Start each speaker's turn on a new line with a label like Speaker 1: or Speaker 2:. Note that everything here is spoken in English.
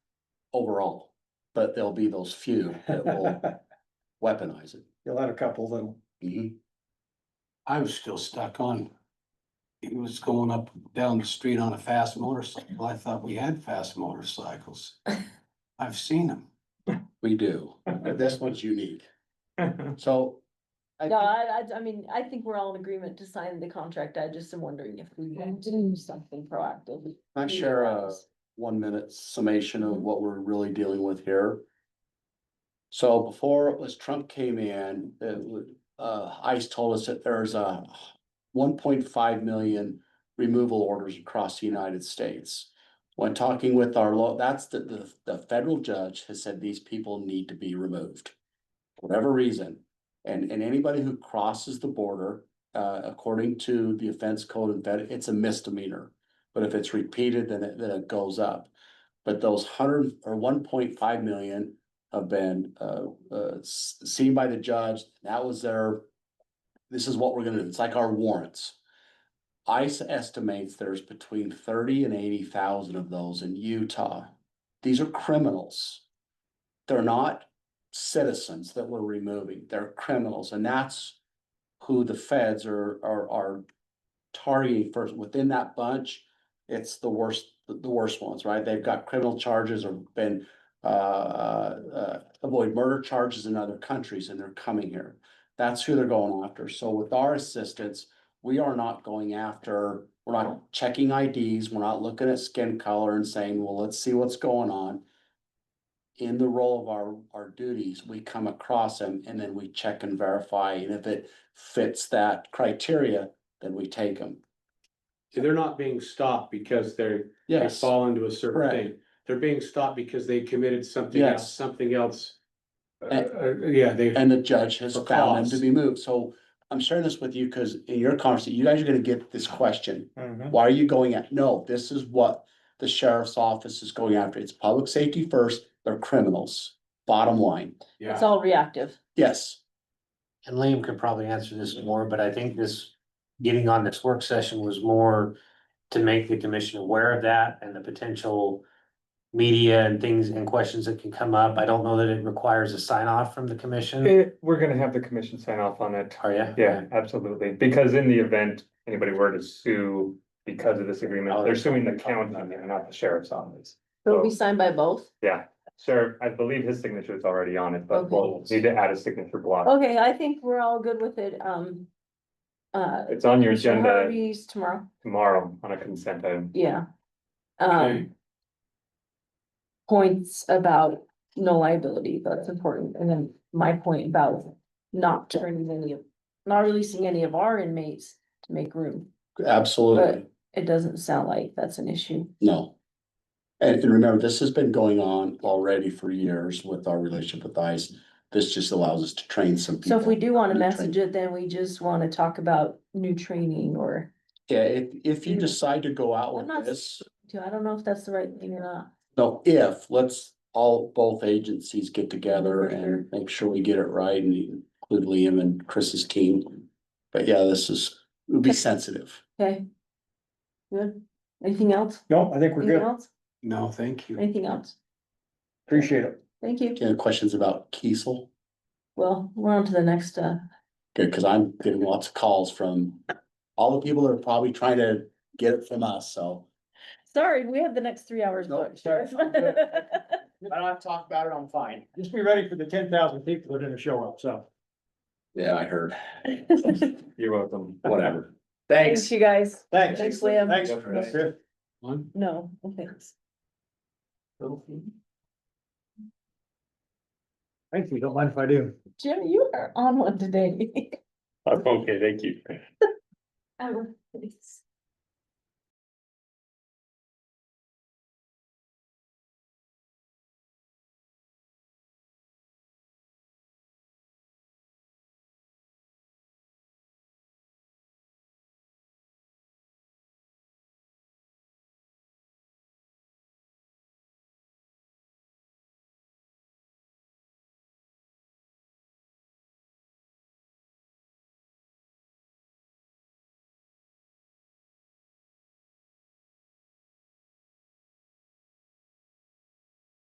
Speaker 1: overall, but there'll be those few that will weaponize it.
Speaker 2: You'll have a couple that'll.
Speaker 1: Mhm.
Speaker 3: I was still stuck on. He was going up, down the street on a fast motorcycle. I thought we had fast motorcycles. I've seen them.
Speaker 1: We do, but this one's unique, so. I
Speaker 4: No,
Speaker 1: think-
Speaker 4: I, I, I mean, I think we're all in agreement to sign the contract. I just am wondering if we want to do something proactive.
Speaker 1: Can I share a one minute summation of what we're really dealing with here? So before it was Trump came in, it would- uh, ICE told us that there's a one point five million removal orders across the United States. When talking with our law, that's the, the, the federal judge has said these people need to be removed. for Whatever reason, and, and anybody who crosses the border, uh, according to the offense code, and fed- it's a misdemeanor. But if it's repeated, then it, then it goes up. But those hundred or one point five million have been, uh, uh, s- seen by the judge. That was their, this is what we're gonna do. It's like our warrants. ICE estimates there's between thirty and eighty thousand of those in Utah. These are criminals. They're not citizens that we're removing. They're criminals, and that's who the feds are, are, are targeting first. Within that bunch, it's the worst, the worst ones, right? They've got criminal charges or been uh, uh, avoid murder charges in other countries and they're coming here. That's who they're going after. So with our assistance, we are not going after, we're not checking IDs, we're not looking at skin color and saying, well, let's see what's going on. In the role of our, our duties, we come across them and then we check and verify. And if it fits that criteria, then we take them.
Speaker 5: They're not being stopped because they're, they
Speaker 1: Yes.
Speaker 5: fall into a certain
Speaker 1: Correct.
Speaker 5: thing. They're being stopped because they committed something
Speaker 1: Yes.
Speaker 5: else, something else. Uh,
Speaker 1: And-
Speaker 5: uh, yeah, they,
Speaker 1: And the judge has
Speaker 5: For
Speaker 1: found them to
Speaker 5: cause.
Speaker 1: be moved. So I'm sharing this with you because in your conversation, you guys are gonna get this question.
Speaker 2: Mhm.
Speaker 1: Why are you going at? No, this is what the sheriff's office is going after. It's public safety first. They're criminals. Bottom line,
Speaker 5: yeah.
Speaker 4: It's all reactive.
Speaker 1: yes.
Speaker 6: And Liam could probably answer this more, but I think this, getting on this work session was more to make the commission aware of that and the potential media and things and questions that can come up. I don't know that it requires a sign off from the commission.
Speaker 7: Eh, we're gonna have the commission sign off on it.
Speaker 6: Are you?
Speaker 7: Yeah, absolutely, because in the event anybody were to sue because of this agreement, they're suing the county, not the sheriff's office.
Speaker 4: It'll
Speaker 7: So,
Speaker 4: be signed by both.
Speaker 7: yeah, sheriff, I believe his signature is already on it, but we'll
Speaker 6: Okay.
Speaker 7: need to add a signature block.
Speaker 4: Okay, I think we're all good with it. Um. Uh.
Speaker 7: It's on your
Speaker 4: Mr.
Speaker 7: agenda
Speaker 4: Harvey's tomorrow.
Speaker 7: tomorrow on a consent item.
Speaker 4: Yeah.
Speaker 5: Okay.
Speaker 4: Um. Points about no liability, that's important, and then my point about not turning any of, not releasing any of our inmates to make room.
Speaker 1: Absolutely,
Speaker 4: But- It doesn't sound like that's an issue.
Speaker 1: no. And, and remember, this has been going on already for years with our relationship with ICE. This just allows us to train some people.
Speaker 4: So if we do wanna
Speaker 1: New training.
Speaker 4: message it, then we just wanna talk about new training or,
Speaker 1: Yeah, if, if you decide to go out
Speaker 4: Hmm. I'm not-
Speaker 1: with this,
Speaker 4: I don't know if that's the right thing or not.
Speaker 1: no, if, let's all, both agencies get together and make sure we get it right and include Liam and Chris's team. But yeah, this is, it would be sensitive.
Speaker 4: Okay. Good. Anything else?
Speaker 2: No, I think we're
Speaker 4: Anything
Speaker 2: good.
Speaker 4: else?
Speaker 3: No, thank you.
Speaker 4: Anything else?
Speaker 2: Appreciate it.
Speaker 4: Thank you.
Speaker 1: Any questions about Kiesel?
Speaker 4: Well, we're on to the next, uh,
Speaker 1: Good, cause I'm getting lots of calls from all the people that are probably trying to get it from us, so.
Speaker 4: sorry, we have the next three hours
Speaker 2: No,
Speaker 4: booked.
Speaker 2: sorry, I'm good. I don't have to talk about it, I'm fine. Just be ready for the ten thousand people that are gonna show up, so.
Speaker 1: Yeah, I heard,
Speaker 7: You're welcome.
Speaker 1: whatever.
Speaker 4: Thanks, you guys.
Speaker 2: Thanks.
Speaker 4: Thanks, Liam.
Speaker 2: Thanks.
Speaker 7: Right.
Speaker 2: Chris.
Speaker 5: One.
Speaker 4: No, thanks.
Speaker 2: Thank you, don't mind if I do.
Speaker 4: Jim, you are on one today.
Speaker 7: Okay, thank you.
Speaker 4: Um, it's-